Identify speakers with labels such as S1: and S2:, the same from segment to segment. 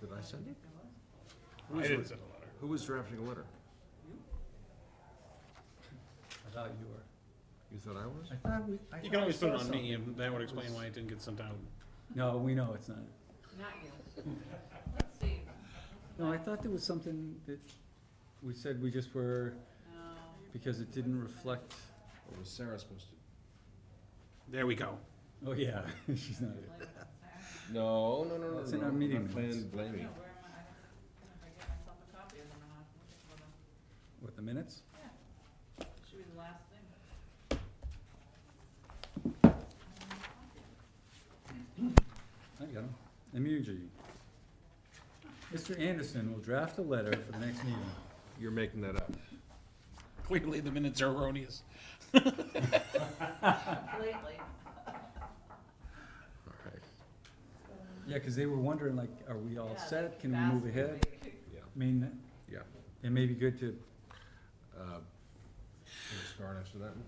S1: Did I send it? Who
S2: I
S1: was
S2: didn't
S1: it?
S2: send a letter.
S1: Who was drafting a letter?
S3: I thought you were.
S1: You thought I was?
S3: I thought we. I
S2: You
S3: thought
S2: can
S3: I
S2: always put it
S3: saw
S2: on me,
S3: something.
S2: and that would explain why it didn't get sent out.
S3: No, we know it's not.
S4: Not you. Let's see.
S3: No, I thought there was something that we said we just were,
S4: No.
S3: because it didn't reflect,
S1: Or was Sarah supposed to?
S2: There we go.
S3: oh, yeah, she's not here.
S4: Like,
S1: No, no, no, no, no.
S3: It's in our
S1: I'm
S3: meeting
S1: not plan-
S3: minutes.
S1: Blaming.
S4: yeah, where am I? I'm gonna get myself a copy of them and I'll look for them.
S3: What, the minutes?
S4: Yeah. Should be the last thing.
S3: I got them. Immunology. Mr. Anderson will draft a letter for the next meeting.
S1: You're making that up.
S2: Clearly, the minutes are erroneous.
S4: Completely.
S1: All right.
S3: Yeah, because they were wondering like, are we all
S4: Yeah,
S3: set? Can we
S4: fast
S3: move ahead?
S4: moving.
S1: Yeah,
S3: I mean,
S1: yeah.
S3: it may be good to,
S1: Uh, Can we start after that one?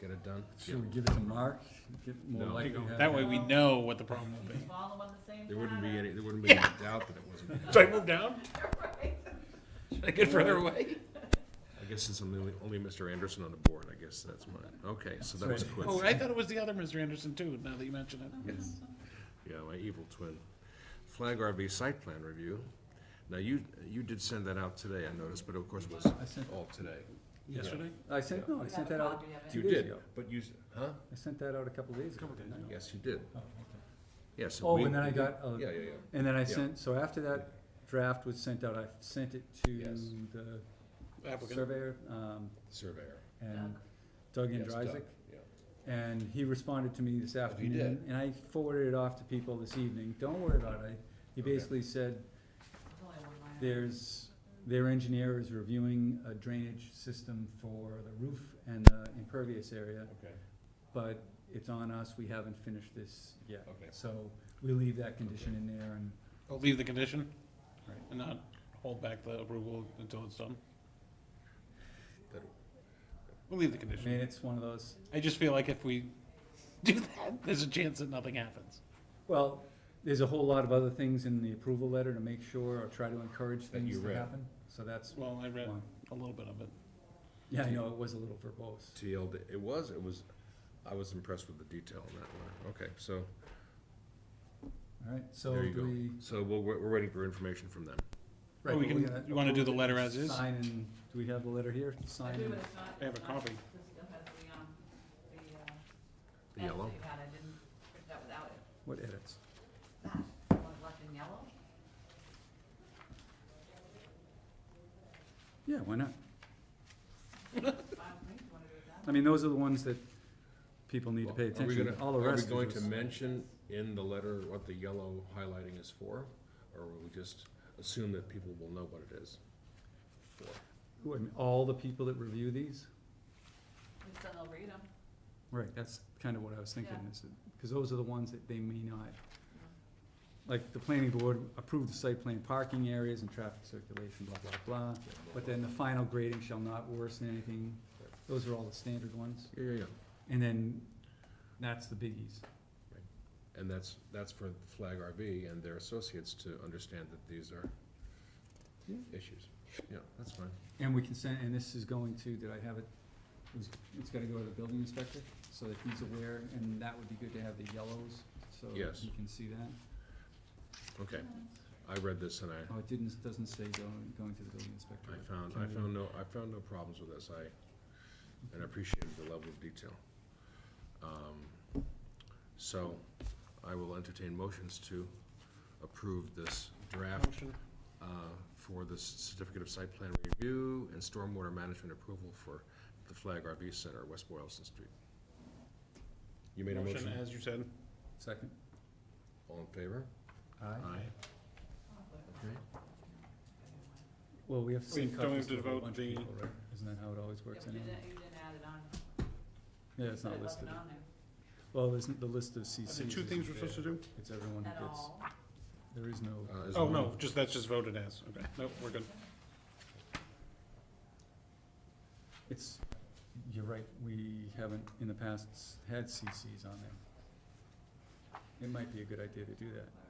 S1: Get it done?
S3: should we give it to Mark? Get more
S1: No.
S3: likely to have-
S2: That way, we know what the problem will be.
S4: Just follow at the same
S1: There wouldn't be
S4: time.
S1: any, there wouldn't be any doubt that it wasn't.
S2: Should I move down?
S4: Right.
S2: Should I get further away?
S1: I guess since I'm the only, only Mr. Anderson on the board, I guess that's mine. Okay, so that was a
S3: Sorry.
S1: quiz.
S2: Oh, I thought it was the other Mr. Anderson too, now that you mention it.
S1: Yes. Yeah, my evil twin. Flag RV site plan review. Now, you, you did send that out today, I noticed, but of course it was
S3: I sent,
S1: all today.
S2: Yesterday?
S3: I sent, no, Oh, I
S4: You
S3: sent
S4: have
S3: that
S4: a
S3: out
S4: copy of it.
S3: two
S1: You
S3: days
S1: did,
S3: ago.
S1: but you, s- huh?
S3: I sent that out a couple days ago.
S2: Couple days
S3: didn't I?
S1: Yes, you did.
S3: Oh, okay.
S1: Yes.
S3: Oh,
S1: we-
S3: and then I got, uh,
S1: Yeah, yeah, yeah.
S3: and then I
S1: Yeah.
S3: sent, so after that draft was sent out, I sent it
S1: Yes.
S3: to the
S2: Applicant.
S3: surveyor, um,
S1: Surveyor.
S3: and Doug
S1: Yes, Doug,
S3: Andrysik.
S1: yeah.
S3: And he responded to me this afternoon.
S1: did.
S3: And I forwarded it off to people this evening, don't worry about it, he
S1: Okay.
S3: basically said,
S4: There's only one line.
S3: there's, their engineer is reviewing a drainage system for the roof and the impervious area,
S2: Okay.
S3: but it's on us, we haven't finished this yet.
S1: Okay.
S3: So we leave that condition in there and
S2: I'll Oh, leave the condition
S3: Right.
S2: and not hold back the approval until it's done.
S1: That'll-
S2: We'll leave the
S3: I mean,
S2: condition.
S3: it's one of those,
S2: I just feel like if we do that, there's a chance that nothing happens.
S3: well, there's a whole lot of other things in the approval letter to make sure or try to encourage
S1: That
S3: things
S1: you
S3: to
S1: read.
S3: happen, so that's
S2: Well, I read
S3: one.
S2: a little bit of it.
S3: Yeah, I know, it was a little verbose.
S1: TLD, it was, it was, I was impressed with the detail on that one. Okay, so
S3: Alright, so
S1: there you
S3: do we?
S1: go. So we're, we're we're waiting for information from them.
S3: right,
S2: Or we
S3: but we're
S2: can-
S3: gonna
S2: you wanna do the
S3: approve it,
S2: letter as is?
S3: Sign and, do we have the letter here?
S4: I
S3: Sign
S4: do,
S3: and,
S4: but it's not.
S2: I have a
S4: it's not-
S2: copy.
S4: This still has the, um, the, uh.
S1: The
S4: edit
S1: yellow?
S4: that you had. I didn't print that without it.
S3: what edits?
S4: That, the one left in yellow.
S3: Yeah, why not?
S4: Fine with me, if you wanna do it that
S3: I
S4: way.
S3: mean, those are the ones that people need to pay
S1: Are we
S3: attention
S1: gonna-
S3: to, all the rest is
S1: Are we going
S3: just-
S1: to mention in the letter what the yellow highlighting is for? Or will we just assume that people will know what it is? for?
S3: Who, I mean, all the people that review these?
S4: Just then they'll read 'em.
S3: Right, that's kinda what I was thinking,
S4: Yeah.
S3: is that, cause those are the ones that they may not, like, the planning board approved the site plan parking areas and traffic circulation, blah, blah, blah. But then the final grading shall not worsen anything, those are all the standard ones,
S1: Yeah, yeah, yeah.
S3: and then, that's the biggies.
S1: And that's, that's for Flag RV and their associates to understand that these are
S3: Yeah.
S1: issues. Yeah, that's fine.
S3: And we can send, and this is going to, did I have it, it was- it's gotta go to the building inspector, so that he's aware, and that would be good to have the yellows, so
S1: Yes.
S3: he can see that.
S1: Okay, I read this and I,
S3: Oh, it didn't, doesn't say going, going to the building inspector.
S1: I
S3: but
S1: found,
S3: can
S1: I
S3: we-
S1: found no, I found no problems with this, I, and I appreciated the level of detail. Um, So, I will entertain motions to approve this draft
S2: Motion.
S1: uh, for the certificate of site plan review and stormwater management approval for the Flag RV Center, West Boylston Street. You made a motion?
S2: As you said.
S3: Second.
S1: All in favor?
S3: Aye.
S1: Okay.
S3: Well, we have to
S2: Wait,
S3: send
S2: don't we
S3: copies
S2: have to
S3: to a whole
S2: vote
S3: bunch of
S2: the-
S3: people, right? Isn't that how it always
S4: Yeah,
S3: works
S4: but you
S3: anyway?
S4: didn't, you didn't add it on.
S3: Yeah, it's
S4: But
S3: not
S4: it wasn't
S3: listed.
S4: on there
S3: Well, isn't the list of CCs?
S2: The two
S3: isn't
S2: things we're supposed to
S3: there.
S2: do?
S3: It's everyone who
S4: At
S3: gets,
S4: all.
S3: there is no,
S1: Uh, is
S2: Oh,
S1: one-
S2: no, just, that's just voted as. Okay, nope, we're good.
S3: it's, you're right, we haven't in the past s- had CCs on there. It might be a good idea to do that.